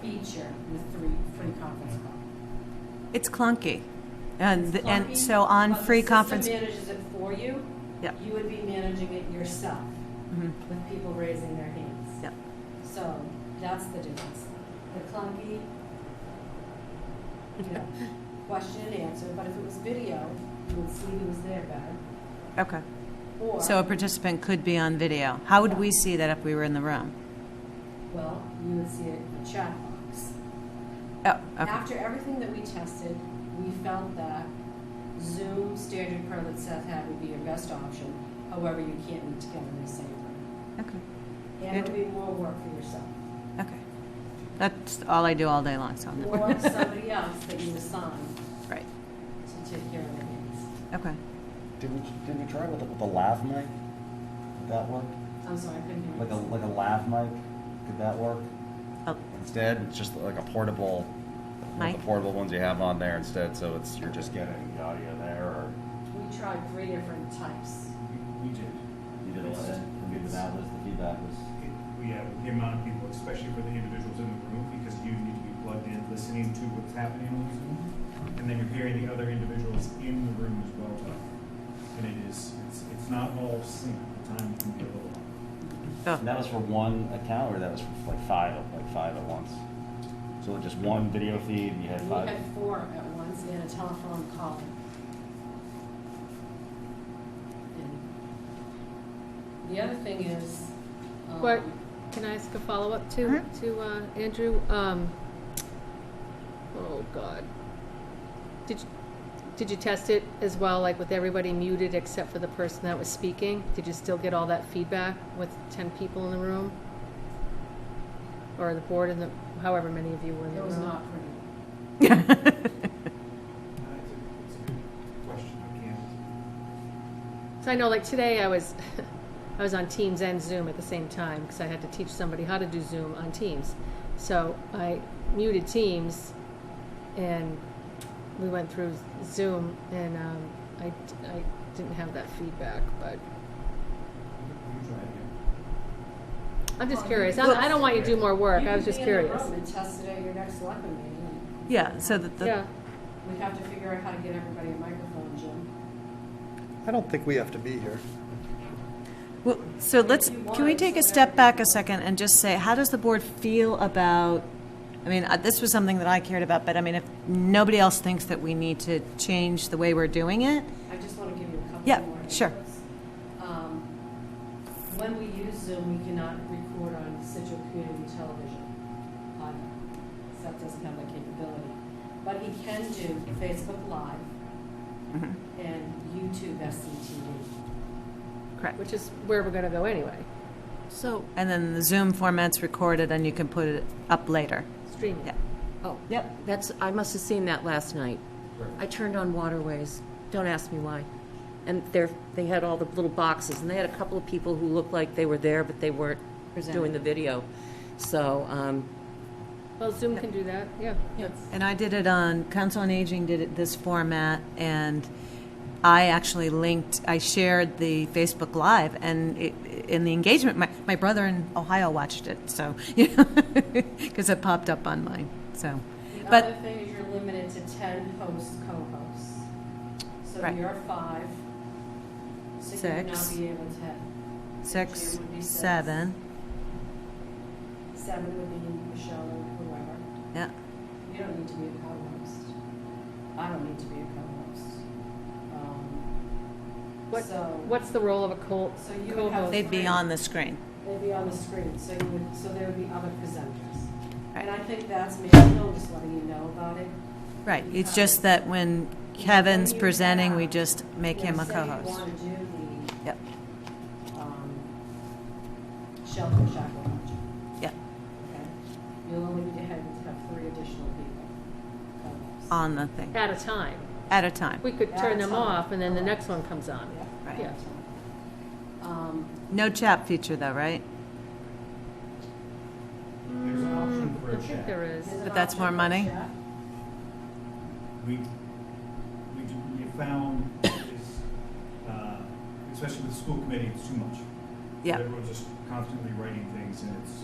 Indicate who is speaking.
Speaker 1: feature with three free conference call.
Speaker 2: It's clunky. And, th- and
Speaker 1: Clunky,
Speaker 2: so on
Speaker 1: but the
Speaker 2: free
Speaker 1: system
Speaker 2: conference,
Speaker 1: manages it for you.
Speaker 2: Yep.
Speaker 1: You would be managing it yourself
Speaker 2: Mhm.
Speaker 1: with people raising their hands.
Speaker 2: Yep.
Speaker 1: So that's the difference. The clunky, you know, question and answer, but if it was video, you would see who was there better.
Speaker 2: okay.
Speaker 1: Or,
Speaker 2: So a participant could be on video. How would we see that if we were in the room?
Speaker 1: well, you would see it in the chat box.
Speaker 2: Oh, okay.
Speaker 1: After everything that we tested, we felt that Zoom standard pro that Seth had would be your best option. However, you can't meet together in the same room.
Speaker 2: Okay.
Speaker 1: And it would be more work for yourself.
Speaker 2: Okay. That's all I do all day long, so I'm not-
Speaker 1: Or somebody else that you assign
Speaker 2: right.
Speaker 1: to take care of the kids.
Speaker 2: Okay.
Speaker 3: Did we, did we try with, with a lav mic? Did that work?
Speaker 1: I'm sorry, I couldn't hear
Speaker 3: Like a,
Speaker 1: you.
Speaker 3: like a lav mic? Did that work?
Speaker 2: Oh,
Speaker 3: Instead, it's just like a portable, like
Speaker 2: Mic?
Speaker 3: the portable ones you have on there instead, so it's, you're just getting the audio there, or
Speaker 1: We tried three different types.
Speaker 4: We, we did.
Speaker 3: you did a
Speaker 4: It's-
Speaker 3: lot of,
Speaker 4: it's-
Speaker 3: that was, the feedback was.
Speaker 4: it- We have the amount of people, especially for the individuals in the room, because you need to be plugged in, listening to what's happening on Zoom, and then you're hearing the other individuals in the room as well talk. And it is, it's, it's not all sync, the time can be a little off.
Speaker 2: oh,
Speaker 3: And that was for one account, or that was for like five, like five at once? So just one video feed, you had
Speaker 1: We
Speaker 3: five?
Speaker 1: had four at once and a telephone call. And The other thing is. um,
Speaker 5: But can I ask a follow-up to
Speaker 2: Mhm.
Speaker 5: to uh, Andrew? Um, oh God, did you, did you test it as well? Like with everybody muted except for the person that was speaking? Did you still get all that feedback with ten people in the room, or the board and the however many of you were in the
Speaker 1: It was
Speaker 5: room?
Speaker 1: not pretty.
Speaker 4: It's a- it's a good question, I can't.
Speaker 5: So I know, like today, I was, I was on Teams and Zoom at the same time because I had to teach somebody how to do Zoom on Teams. So I muted Teams, and we went through Zoom, and um, I, I didn't have that feedback. But
Speaker 4: You try again.
Speaker 5: I'm just
Speaker 1: Well,
Speaker 5: curious.
Speaker 1: you-
Speaker 5: I, I don't want you to do more work.
Speaker 1: You
Speaker 5: I was
Speaker 1: could
Speaker 5: just
Speaker 1: be in the
Speaker 5: curious.
Speaker 1: room And test it at your next selectman meeting.
Speaker 2: Yeah, so that the,
Speaker 5: Yeah.
Speaker 1: We'd have to figure out how to get everybody a microphone, Jim.
Speaker 6: I don't think we have to be here.
Speaker 2: Well, so let's,
Speaker 1: you
Speaker 2: can we
Speaker 1: want,
Speaker 2: take a
Speaker 1: so
Speaker 2: step back a
Speaker 1: everything-
Speaker 2: second and just say, how does the board feel about, I mean, uh, this was something that I cared about, but I mean, if nobody else thinks that we need to change the way we're doing it,
Speaker 1: I just want to give you a couple more.
Speaker 2: Yeah, sure.
Speaker 1: inputs. Um, When we use Zoom, we cannot record on Situate Community Television. Uh, Seth doesn't have that capability. But he can do Facebook Live and YouTube SCTV.
Speaker 2: correct?
Speaker 5: Which is where we're going to go anyway.
Speaker 2: So. And then the Zoom format's recorded and you can put it up later.
Speaker 5: Streaming.
Speaker 2: Yeah.
Speaker 7: Oh,
Speaker 2: Yep.
Speaker 7: that's, I must have seen that last night. I turned on Waterways, don't ask me why. And there, they had all the little boxes, and they had a couple of people who looked like they were there, but they weren't doing the video. So, um,
Speaker 5: Well, Zoom can do that. Yeah.
Speaker 2: And I did it on, Council on Aging did it this format, and I actually linked, I shared the Facebook Live, and it, in the engagement, my, my brother in Ohio watched it, so, you know, because it popped up on mine, so.
Speaker 1: The
Speaker 2: But-
Speaker 1: other thing is you're limited to ten hosts, co-hosts. So
Speaker 2: Right.
Speaker 1: you're five. So you would not
Speaker 2: Six.
Speaker 1: be able to,
Speaker 2: Six,
Speaker 1: Jim would be six.
Speaker 2: seven,
Speaker 1: seven would be Michelle or whoever.
Speaker 2: yeah,
Speaker 1: You don't need to be a co-host. I don't need to be a co-host. Um,
Speaker 5: What,
Speaker 1: So,
Speaker 5: What's the role of a co-
Speaker 1: So you would have-
Speaker 5: co-host?
Speaker 2: they'd be on the screen.
Speaker 1: they'd be on the screen, so you would, so there would be other presenters.
Speaker 2: Right.
Speaker 1: And I think that's maybe, I'm just letting you know about it.
Speaker 2: Right, it's just that when Kevin's presenting, we just make
Speaker 1: You know,
Speaker 2: him a
Speaker 1: say you
Speaker 2: co-host.
Speaker 1: wanna do the
Speaker 2: Yep,
Speaker 1: um, shelter chaperone.
Speaker 2: yep,
Speaker 1: Okay, You'll only need to have, have three additional people. co-hosts.
Speaker 2: on the thing,
Speaker 5: at a time.
Speaker 2: at a time.
Speaker 5: We could
Speaker 1: At
Speaker 5: turn
Speaker 1: a
Speaker 5: them
Speaker 1: time.
Speaker 5: off, and then the
Speaker 1: Correct.
Speaker 5: next one comes on.
Speaker 1: Yeah.
Speaker 2: Right.
Speaker 5: Yeah.
Speaker 1: Um,
Speaker 2: No chat feature though, right?
Speaker 4: There's an option for
Speaker 5: I
Speaker 4: a
Speaker 5: think
Speaker 4: chat.
Speaker 5: there is.
Speaker 1: there's an
Speaker 2: But that's
Speaker 1: option
Speaker 2: more
Speaker 1: for
Speaker 2: money?
Speaker 1: chat.
Speaker 4: we, we, do- we found is, uh, especially with the school committee, it's too much.
Speaker 2: Yeah.
Speaker 4: Everyone's just constantly writing things and it's,